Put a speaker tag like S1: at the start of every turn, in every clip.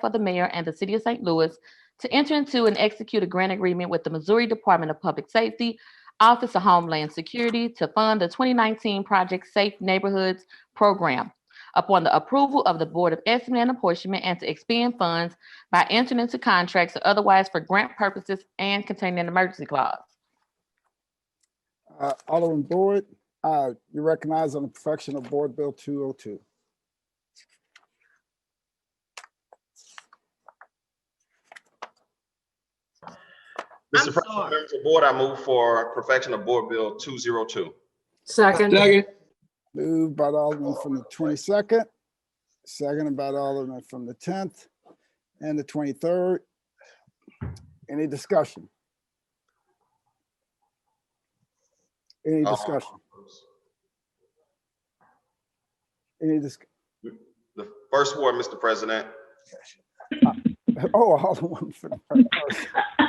S1: for the mayor and the city of St. Louis to enter into and execute a grant agreement with the Missouri Department of Public Safety, Office of Homeland Security to fund the 2019 Project Safe Neighborhoods Program upon the approval of the Board of Estimate and Apportionment and to expend funds by entering into contracts or otherwise for grant purposes and containing an emergency clause.
S2: Uh, Alderman Boyd, uh, you recognize on the perfection of Board Bill 202.
S3: Mr.
S4: I'm
S3: President,
S4: sorry.
S3: members of the board, I move for perfection of Board Bill 202.
S5: Second,
S6: Second,
S2: Moved by the Alderman from the 22nd, seconded by the Alderman from the 10th and the 23rd. Any discussion? Any
S3: Uh-huh.
S2: discussion? Any dis,
S3: The first ward, Mr. President,
S2: oh, Alderman from the first.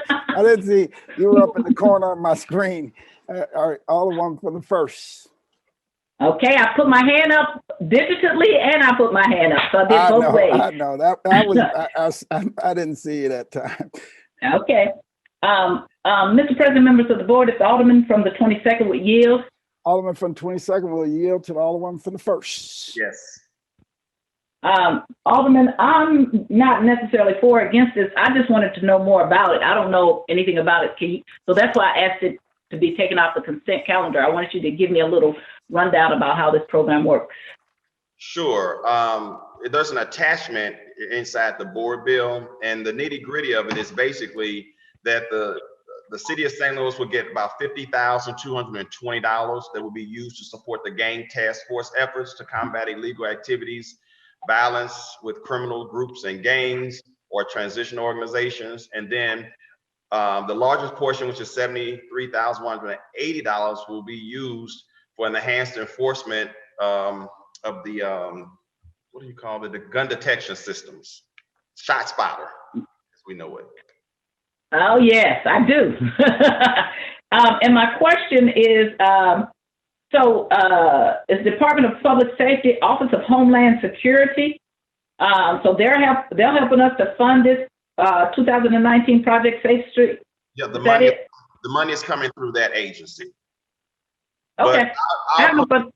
S2: I didn't see, you were up in the corner of my screen. Uh, All right, Alderman from the first.
S4: Okay, I put my hand up digitally and I put my hand up, so I
S2: I
S4: did
S2: know,
S4: both ways.
S2: I know, that, I was, I- I s- I, I didn't see it at time.
S4: Okay. Um, um, Mr. President, members of the board, it's Alderman from the 22nd with yield.
S2: Alderman from twenty-second will yield to the Alderman from the first.
S3: yes.
S4: Um, Alderman, I'm not necessarily for or against this. I just wanted to know more about it. I don't know anything about it, Keith. So that's why I asked it to be taken off the consent calendar. I wanted you to give me a little rundown about how this program works.
S3: Sure. Um, there's an attachment i- inside the board bill and the nitty gritty of it is basically that the, the city of St. Louis will get about fifty thousand, two hundred and twenty dollars that will be used to support the gang task force efforts to combat illegal activities, violence with criminal groups and gangs or transitional organizations. And then um, the largest portion, which is seventy-three thousand, one hundred and eighty dollars will be used for enhanced enforcement, um, of the, um, what do you call it, the gun detection systems, shot spotter, as we know it.
S4: Oh, yes, I do. um, and my question is um, so, uh, is Department of Public Safety, Office of Homeland Security, um, so they're, help, they're helping us to fund this uh, 2019 Project Safe Street.
S3: Yeah, the
S4: Is that
S3: money,
S4: it?
S3: the money is coming through that agency. but-
S4: Okay. I don't
S3: I'll
S4: know,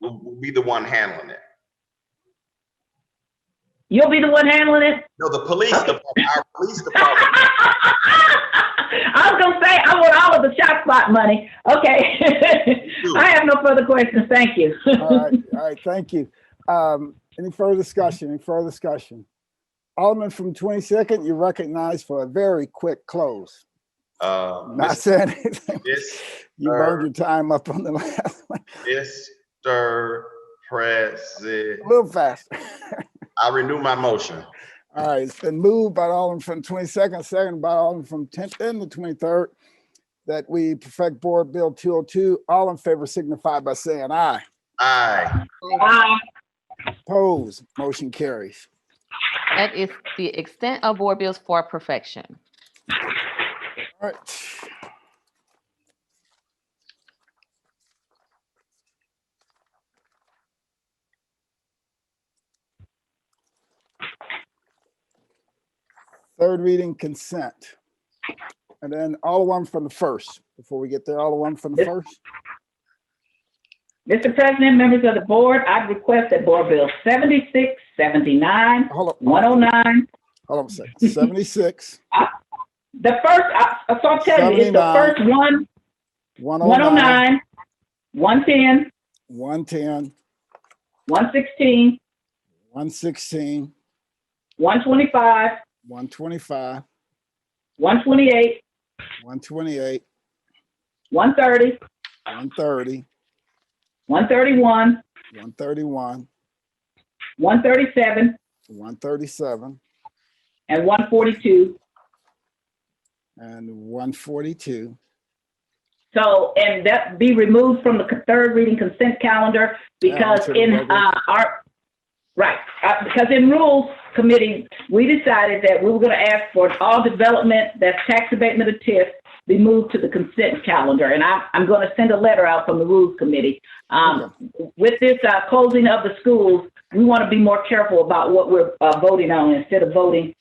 S4: but
S3: be the one handling it.
S4: you'll be the one handling it?
S3: No, the police department, our police department,
S4: I was going to say, I want all of the shot spot money. Okay. I have no further questions. Thank you.
S2: All right, all right, Uh, thank you. Um, any further discussion, any further discussion? Alderman from twenty-second, you recognize for a very quick close.
S3: uh,
S2: Not saying anything.
S3: Yes,
S2: You burned your time up on the last one,
S3: Mr. President,
S2: a little faster.
S3: I renew my motion.
S2: All right, it's been moved by the Alderman from twenty-second, second by Alderman from tenth and the twenty-third that we perfect Board Bill two oh two. All in favor signify by saying aye.
S3: Aye.
S4: Bye.
S2: Opposed, motion carries.
S1: That is the extent of board bills for perfection.
S2: All right. Third reading consent. And then all one from the first, before we get there, all one from the
S4: Yes.
S2: first.
S4: Mr. President, members of the board, I request that Board Bill 76, 79,
S2: Hold on, hold on,
S4: 109,
S2: hold on a second. Seventy-six,
S4: the first, I, I saw tell you, it's
S2: 79,
S4: the first one,
S2: one oh nine,
S4: 109, 110,
S2: one ten,
S4: 116,
S2: one sixteen,
S4: 125,
S2: one twenty-five,
S4: 128,
S2: one twenty-eight,
S4: 130,
S2: one thirty,
S4: 131,
S2: one thirty-one,
S4: 137,
S2: one thirty-seven,
S4: and 142.
S2: And one forty-two.
S4: So, and that be removed from the c- third reading consent calendar because
S2: to the
S4: in,
S2: regular-
S4: uh, our, right, uh, because in rules committee, we decided that we were gonna ask for all development that's tax abatement of TIF be moved to the consent calendar. And I, I'm going to send a letter out from the Rules Committee. Um, with this uh, closing of the schools, we want to be more careful about what we're uh, voting on instead of voting